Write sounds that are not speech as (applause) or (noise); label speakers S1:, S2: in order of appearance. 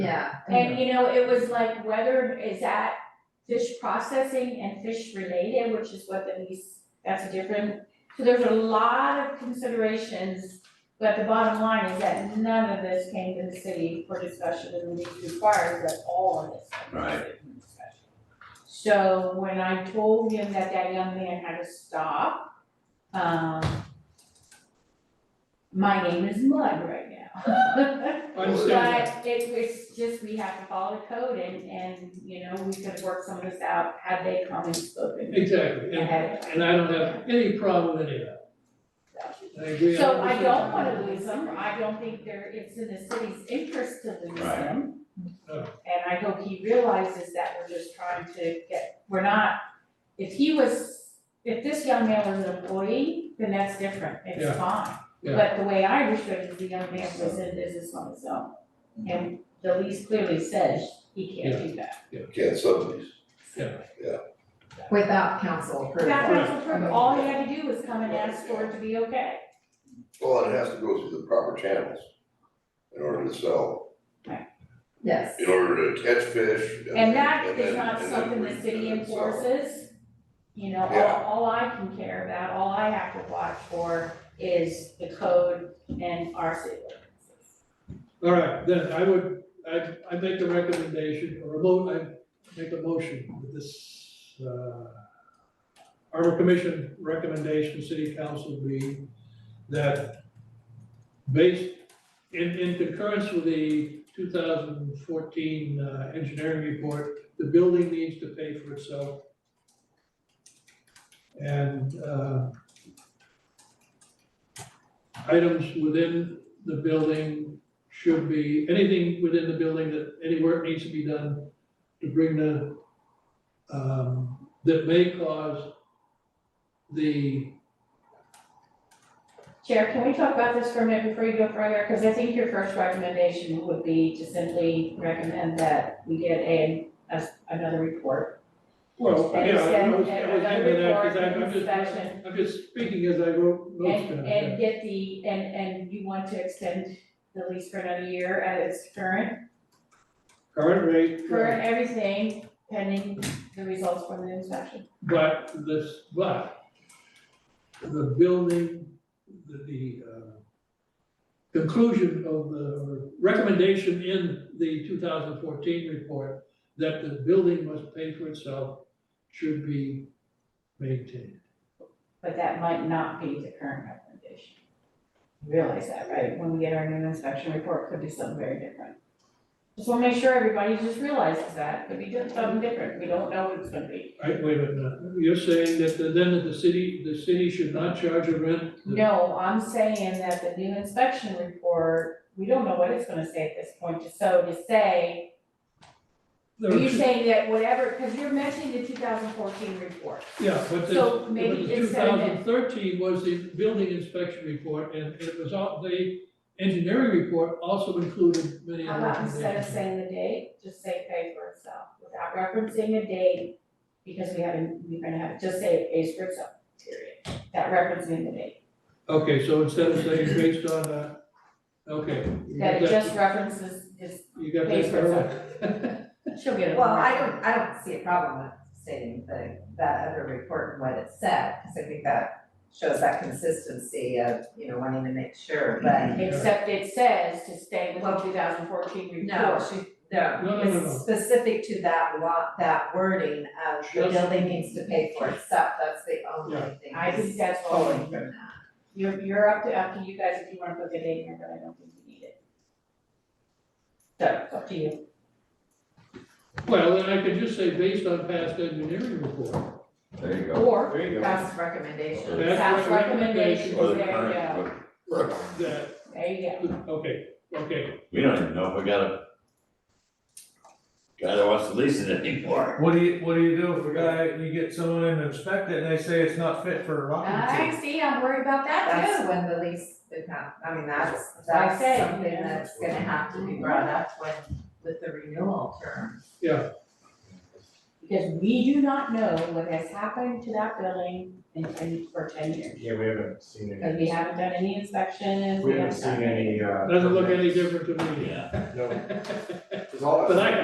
S1: Yeah.
S2: And you know, it was like whether is that fish processing and fish related, which is what the lease, that's a different. So there's a lot of considerations, but the bottom line is that none of this came to the city for discussion and the lease requires that all of this. comes to
S3: Right.
S2: the discussion. So when I told him that that young man had to stop, um. My name is Mud right now. (laughs)
S4: I understand
S2: But it was just, we have to follow the code and, and, you know, we could work some of this out, had they come and
S4: that.
S2: spoken
S4: Exactly, and,
S2: ahead of time.
S4: and I don't have any problem with any of that. I agree
S2: So
S4: a hundred
S2: I don't wanna
S4: percent.
S2: lose them, I don't think there, it's in the city's interest to lose
S3: Right.
S2: them.
S4: No.
S2: And I hope he realizes that we're just trying to get, we're not, if he was, if this young man was an employee, then that's different,
S4: Yeah.
S2: it's fine.
S4: Yeah.
S2: But the way I understood it, the young man was in business on his own, and the lease clearly says he can't do that.
S5: Can't sublease.
S1: Without council approval.
S2: That council approved, all he had to do was come and ask for it to be okay.
S5: Well, and it has to go through the proper channels in order to sell,
S1: Yes.
S5: in order to catch fish.
S2: And that
S5: and
S2: is
S5: then-
S2: not
S5: and then
S2: something
S5: re-
S2: the city
S5: and then sell.
S2: enforces. You know,
S5: Yeah.
S2: all, all I can care about, all I have to watch for is the code and our city ordinances.
S4: All right, then I would, I, I make the recommendation, or a mo, I make a motion with this, uh, Harbor Commission recommendation, city council be that based in, in concurrence with the two thousand fourteen, uh, engineering report, the building needs to pay for itself. And, uh, items within the building should be, anything within the building that, any work needs to be done to bring the, um, that may cause the,
S2: Chair, can we talk about this for a minute before you go further? Because I think your first recommendation would be to simply recommend that we get a, a- another report.
S4: well,
S2: And
S4: yeah, I
S2: send
S4: was, I was
S2: another
S4: thinking
S2: report,
S4: that, because I'm, I'm
S2: inspection.
S4: just, I'm just speaking as I wrote notes down.
S2: And, and get the, and, and you want to extend the lease for another year at its current
S4: Current rate.
S2: For everything pending the results from the inspection.
S4: But this, but the building, the, the, uh, conclusion of the recommendation in the two thousand fourteen report that the building must pay for itself should be maintained.
S2: But that might not be the current recommendation. Realize that, right? When we get our new inspection report, could be something very different. Just wanna make sure everybody just realizes that, could be just something different, we don't know what it's gonna be.
S4: Right, wait a minute, you're saying that the- then the city, the city should not charge a rent?
S2: No, I'm saying that the new inspection report, we don't know what it's gonna say at this point, so to say,
S4: There
S2: are
S4: are
S2: you
S4: two-
S2: saying that whatever, cause you're mentioning the two thousand fourteen report.
S4: Yeah, but the,
S2: So maybe
S4: two
S2: instead of
S4: thousand thirteen was the building inspection report, and it was all, the engineering report also included many
S2: How
S4: other
S2: about Um, instead of
S4: recommendations.
S2: saying the date, just say pay for itself without referencing a date? Because we haven't, we're gonna have, just say it pays for itself, period, without referencing the date.
S4: Okay, so instead of saying based on, uh, okay. you
S2: That
S4: got
S2: it just references is,
S4: You got
S2: pays
S4: that,
S2: for
S4: Carol?
S2: she'll get it.
S1: Well, I don't, I don't see a problem with stating the, that other report and what it said, because I think that shows that consistency of, you know, wanting to make sure,
S4: Mm-hmm.
S1: but.
S2: Except it says to stay with the two thousand fourteen report.
S1: No, she, no,
S4: No, no, no, no.
S1: it's specific to that lot, that wording of the
S4: Just-
S1: building needs to pay for itself, that's the only
S4: Yeah.
S1: thing.
S2: I think that's all
S1: Totally from that.
S2: You're, you're up to, up to you guys if you wanna put the date in there, but I don't think you need it. So, it's up to you.
S4: (laughs) Well, then I could just say based on past engineering report.
S3: There you go.
S2: Or,
S3: There you
S1: That's recommendation.
S3: That's
S2: staff recommendations,
S3: Or
S2: there
S3: the
S2: you go,
S3: current,
S4: That,
S2: there you go.
S4: okay, okay,
S3: but we don't even know if we got a guy that wants to lease it anymore.
S6: What do you, what do you do if a guy, you get someone in to inspect it and they say it's not fit for a occupancy?
S2: I see, I'm worried about that
S1: That's
S2: too.
S1: when the lease, become- I mean, that's,
S2: I
S1: that's
S2: say,
S1: something
S2: yeah.
S1: that's gonna have to be brought up when, with the renewal term.
S2: Because we do not know what has happened to that building in ten, for ten years.
S7: Yeah, we haven't seen
S2: Because
S7: any,
S2: we haven't done any inspections,
S7: we
S2: we
S7: haven't
S2: haven't done.
S7: seen any, uh.
S4: Doesn't look any different to me.
S3: Yeah.
S7: No.
S5: It's all-
S4: (laughs) But I,